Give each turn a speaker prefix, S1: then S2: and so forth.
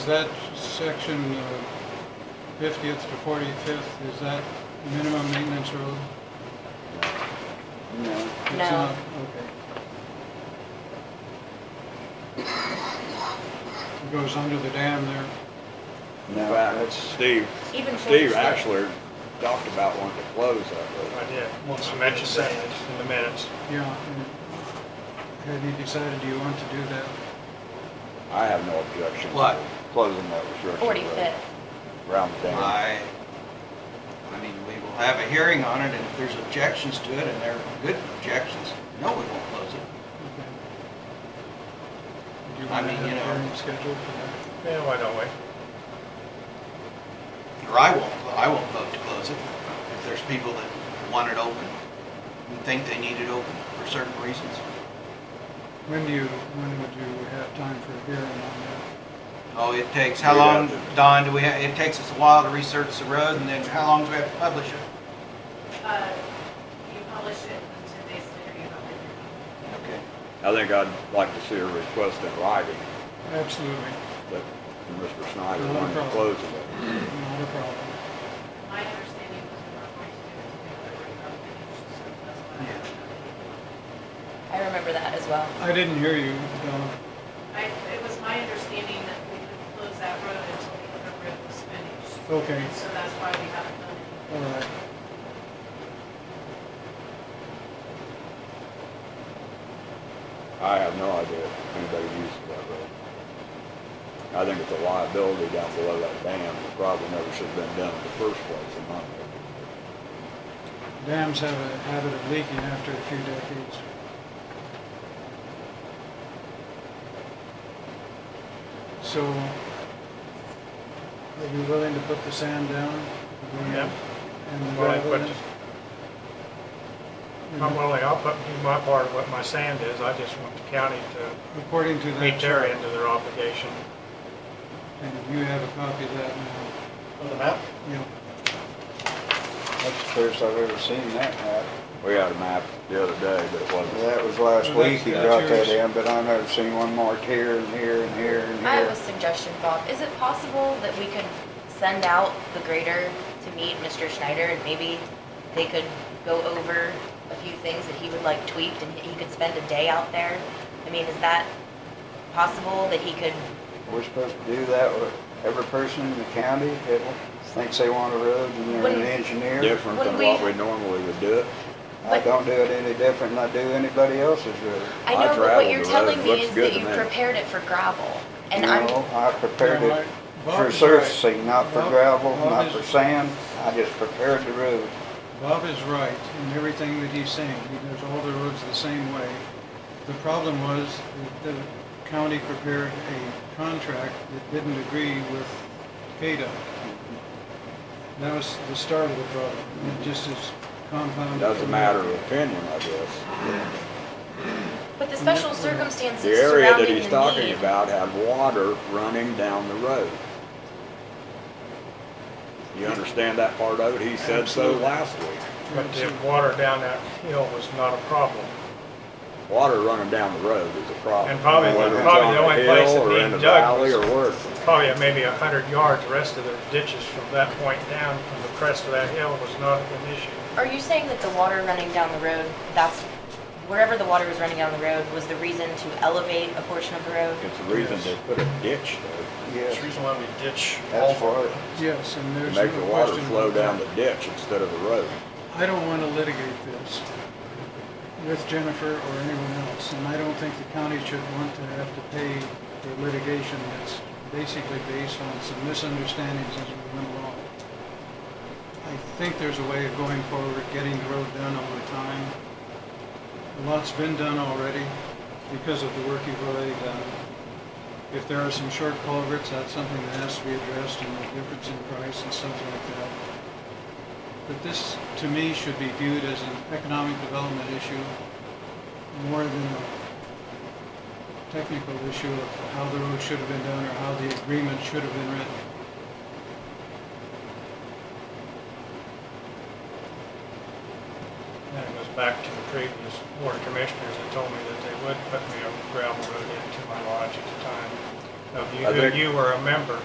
S1: Is that section uh, 50th to 45th, is that minimum maintenance road?
S2: No.
S1: It's
S3: No.
S1: not, Okay. It goes under the dam there.
S2: No, that's Steve.
S3: Even for
S2: Steve
S3: the-
S2: Ashler talked about wanting to close that road.
S4: I did, once I mentioned that in the minutes.
S1: Yeah. and Have you decided do you want to do that?
S2: I have no objection. to
S5: What?
S2: Closing that restriction road.
S3: Forty-fifth.
S2: Around the dam.
S5: I, I mean, we will have a hearing on it, and if there's objections to it, and there are good objections, no, we won't close it.
S1: Okay. Do you
S5: I
S1: want to
S5: mean, you
S1: have a
S5: know-
S1: hearing scheduled for that?
S4: Yeah, why don't we?
S5: Or I won't, I won't vote to close it. If there's people that want it open, and think they need it open for certain reasons.
S1: When do you, when would you have time for a hearing on that?
S5: Oh, it takes, how
S2: We'd have
S5: long,
S2: to-
S5: Don, do we, ha- it takes us a while to research the road, and then how long do we have to publish it?
S6: Uh, You publish it and ten days later you have it.
S5: Okay.
S2: I think I'd like to see a request in writing
S1: Absolutely,
S2: that Mr. Snyder
S1: No
S2: wanted to
S1: problem.
S2: close it.
S1: not a problem.
S6: My understanding was we were going to do it together with our financial surplus. but I don't know.
S3: I remember that as well.
S1: I didn't hear you, Donna.
S6: I, it was my understanding that we would close that road until the other road was finished.
S1: Okay,
S6: And so that's why we haven't done it.
S1: all right.
S2: I have no idea if anybody uses that road. I think it's a liability down below that dam. It probably never should have been done in the first place, in my opinion.
S1: Dams have a habit of leaking after a few decades. So, are you willing to put the sand down?
S4: Yeah.
S1: And the
S4: Well, I
S1: gravel in?
S4: put I'm willing, I'll put, do my part of what my sand is, I just want the county to
S1: According to that
S4: meet their
S1: chart,
S4: end of their obligation.
S1: and you have a copy of that now,
S4: On the map?
S1: yeah.
S7: That's the first I've ever seen that map.
S2: We had a map the other day, but it wasn't.
S7: That was last
S1: Well,
S7: week he
S1: that's-
S7: brought
S1: that's
S7: that in, but I've never seen one marked here and here and here and
S3: I have a
S7: here.
S3: suggestion, Bob. Is it possible that we could send out the grader to meet Mr. Schneider and maybe they could go over a few things that he would like tweaked and he could spend a day out there? I mean, is that possible that he could,
S7: We're supposed to do that with every person in the county that thinks they want a road and they're an
S3: Wouldn't-
S7: engineer.
S2: Different
S3: When
S2: than
S3: we-
S2: what we normally would do it.
S7: I
S3: but-
S7: don't do it any different than I do anybody else's road.
S3: I
S2: I
S3: know, but what
S2: traveled
S3: you're
S2: the road.
S3: telling me
S2: Looks
S3: is
S2: good
S3: that
S2: to
S3: you
S2: me.
S3: prepared it for gravel. And I'm,
S7: No, I prepared
S1: Yeah, right.
S7: it
S1: Bob
S7: for
S1: is right.
S7: surfacing, not for
S1: Bob-
S7: gravel,
S1: Bob
S7: not
S1: is-
S7: for sand. I just prepared the road.
S1: Bob is right in everything that he's saying. He does all the roads the same way. The problem was that the county prepared a contract that didn't agree with KDOT. That was the start of the problem. It just is compounded.
S2: Doesn't matter of opinion, I guess.
S3: but the special
S2: The
S3: circumstances
S2: area that
S3: surrounding
S2: he's
S3: the
S2: talking
S3: need.
S2: about had water running down the road. You understand that part of it? He said so
S1: Absolutely.
S2: last week.
S4: But the water down that hill was not a problem.
S2: Water running down the road is a problem.
S4: And probably-
S2: Whether it's
S4: probably
S2: on
S4: the
S2: a
S4: only place
S2: hill
S4: that
S2: or
S4: being
S2: in the
S4: dug
S2: valley
S4: was-
S2: Or where,
S4: Probably at maybe a hundred yards, the rest of the ditches from that point down, from the crest of that hill was not an issue.
S3: Are you saying that the water running down the road, that's, wherever the water was running down the road was the reason to elevate a portion of the road?
S2: it's the reason they put a ditch
S7: Yes,
S4: reason why we ditch
S7: that's for it.
S1: Yes, and
S2: there
S1: there's no
S2: to make the water
S1: question
S2: flow
S1: about
S2: down the
S1: that.
S2: ditch instead of the road.
S1: I don't want to litigate this with Jennifer or anyone else, and I don't think the county should want to have to pay for litigation that's basically based on some misunderstandings as we went along. I think there's a way of going forward, getting the road done over time. A lot's been done already because of the work you've already done. If there are some short culverts, that's something that has to be addressed, and the difference in price and stuff like that. But this, to me, should be viewed as an economic development issue more than a technical issue of how the road should have been done or how the agreement should have been written.
S4: And it was back to the previous board commissioners that told me that they would put me a gravel road into my lodge at the time. of you,
S2: I
S4: who
S2: think-
S4: you were a member.